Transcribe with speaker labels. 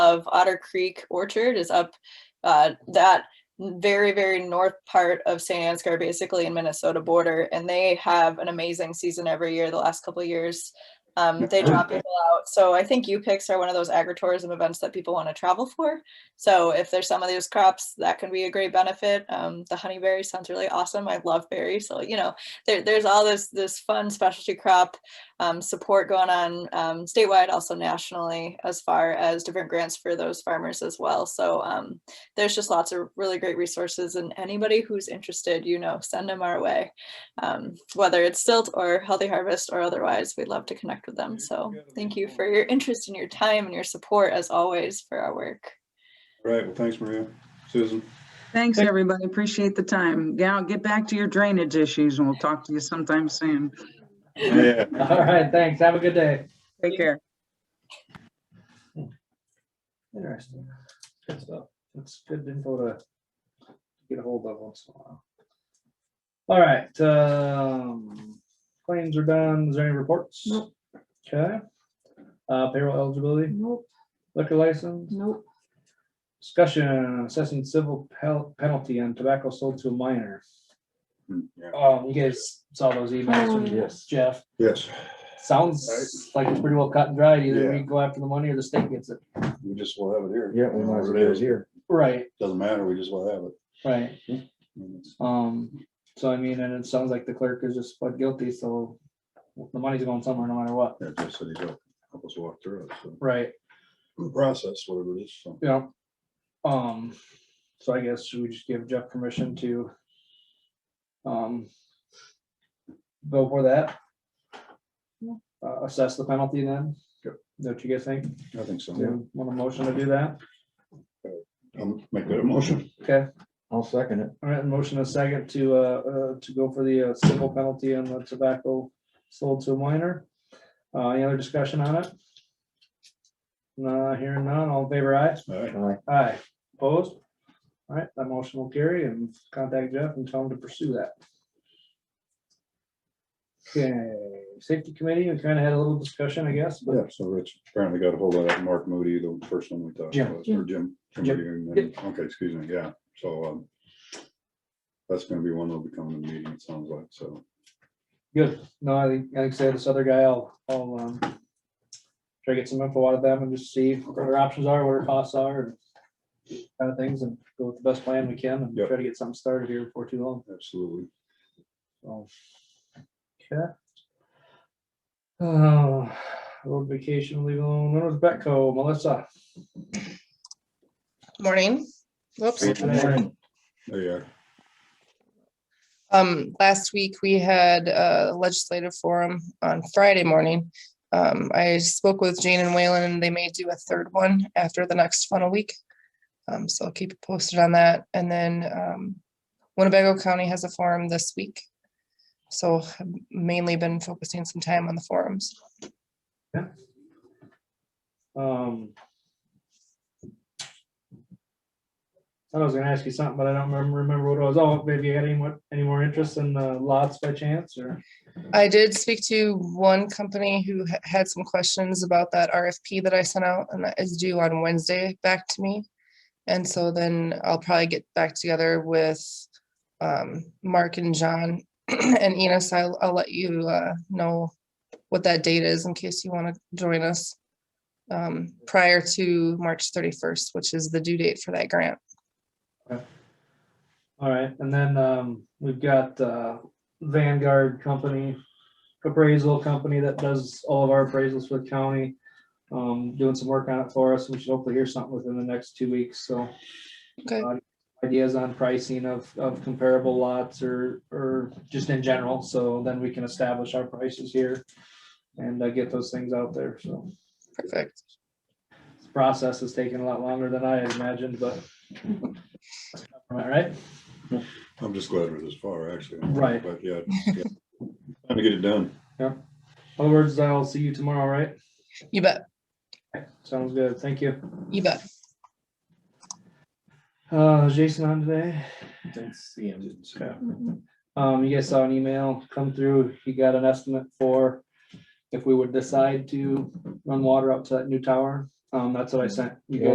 Speaker 1: of Otter Creek Orchard is up uh, that very, very north part of St. Ansgar, basically in Minnesota border. And they have an amazing season every year, the last couple of years. Um, they drop people out. So I think U picks are one of those agritourism events that people want to travel for. So if there's some of those crops, that can be a great benefit. Um, the honeyberry sounds really awesome. I love berries. So, you know, there, there's all this, this fun specialty crop um, support going on um, statewide, also nationally, as far as different grants for those farmers as well. So um, there's just lots of really great resources, and anybody who's interested, you know, send them our way. Um, whether it's Stilt or Healthy Harvest or otherwise, we'd love to connect with them. So thank you for your interest and your time and your support, as always, for our work.
Speaker 2: Right, well, thanks, Maria. Susan,
Speaker 3: Thanks, everybody. Appreciate the time. Now get back to your drainage issues and we'll talk to you sometime soon.
Speaker 2: yeah,
Speaker 4: All right, thanks. Have a good day.
Speaker 3: Take care.
Speaker 4: Interesting. Good stuff. That's good info to get a hold of once in a while. All right, um, claims are done. Is there any reports?
Speaker 5: Nope.
Speaker 4: Okay. Uh, payroll eligibility,
Speaker 5: Nope,
Speaker 4: liquor license,
Speaker 5: nope,
Speaker 4: discussion, assessing civil pel- penalty on tobacco sold to a minor.
Speaker 2: Hmm, yeah.
Speaker 4: Um, you guys saw those emails
Speaker 5: Oh, yeah.
Speaker 4: from
Speaker 2: Yes.
Speaker 4: Jeff.
Speaker 2: yes,
Speaker 4: Sounds like it's pretty well cut and dry. Either we
Speaker 2: Yeah.
Speaker 4: go after the money or the state gets it.
Speaker 2: we just will have it here.
Speaker 6: Yeah, we might as well do it here.
Speaker 4: Right,
Speaker 2: Doesn't matter, we just will have it.
Speaker 4: right.
Speaker 2: And it's-
Speaker 4: Um, so I mean, and it sounds like the clerk is just pled guilty, so the money's going somewhere no matter what.
Speaker 2: That just said he helped help us walk through it, so,
Speaker 4: Right,
Speaker 2: the process, whatever it is, so.
Speaker 4: yeah. Um, so I guess should we just give Jeff permission to um go for that? Uh, assess the penalty then?
Speaker 2: Yep.
Speaker 4: Don't you guys think?
Speaker 2: I think so.
Speaker 4: Do you want a motion to do that?
Speaker 2: I'll make that a motion.
Speaker 4: Okay,
Speaker 6: I'll second it.
Speaker 4: all right, motion a second to uh, uh, to go for the uh, civil penalty on the tobacco sold to a minor. Uh, any other discussion on it? Nah, hearing none, all in favor aye.
Speaker 2: All right,
Speaker 6: Aye.
Speaker 4: Aye, opposed? All right, that motion will carry and contact Jeff and tell him to pursue that. Okay, safety committee, we kind of had a little discussion, I guess, but
Speaker 2: yeah, so Rich apparently got a hold of that Mark Moody, the first one we talked
Speaker 4: Jim.
Speaker 2: about, or Jim. Jim
Speaker 4: Jim.
Speaker 2: Moody, and then- Okay, excuse me, yeah, so, um, that's gonna be one that'll be coming to the meeting, it sounds like, so.
Speaker 4: good. No, I think, like I said, this other guy, I'll, I'll, um, try to get some info out of them and just see what their options are, what our costs are, and kind of things, and go with the best plan we can and
Speaker 2: Yep.
Speaker 4: try to get something started here before too long.
Speaker 2: Absolutely.
Speaker 4: Oh. Okay. Oh, road vacation, leave alone, when was Betco, Melissa?
Speaker 7: Morning. Whoops.
Speaker 2: There you are.
Speaker 7: Um, last week we had a legislative forum on Friday morning. Um, I spoke with Jane and Waylon and they may do a third one after the next funnel week. Um, so I'll keep you posted on that. And then, um, Winnebago County has a forum this week. So I've mainly been focusing some time on the forums.
Speaker 4: Um. thought I was gonna ask you something, but I don't remember, remember what it was. Oh, maybe you had any more, any more interest in the lots by chance or?
Speaker 7: I did speak to one company who ha- had some questions about that RFP that I sent out and that is due on Wednesday back to me. And so then I'll probably get back together with um, Mark and John and Enos. I'll, I'll let you uh, know what that date is in case you want to join us um, prior to March 31st, which is the due date for that grant.
Speaker 4: All right, and then, um, we've got, uh, Vanguard Company, appraisal company that does all of our appraisals for the county. Um, doing some work on it for us. We should hopefully hear something within the next two weeks, so. Uh,
Speaker 7: Okay.
Speaker 4: ideas on pricing of, of comparable lots or, or just in general, so then we can establish our prices here and uh, get those things out there, so.
Speaker 7: Perfect.
Speaker 4: this Process has taken a lot longer than I had imagined, but. Am I right?
Speaker 2: I'm just glad we're this far, actually.
Speaker 4: Right.
Speaker 2: But yeah, yeah. time to get it done.
Speaker 4: Other words, I'll see you tomorrow, right?
Speaker 7: You bet.
Speaker 4: Sounds good, thank you.
Speaker 7: You bet.
Speaker 4: Uh, is Jason on today?
Speaker 6: Didn't see him.
Speaker 4: Okay. Um, you guys saw an email come through, he got an estimate for if we would decide to run water up to that new tower, um, that's what I sent you guys.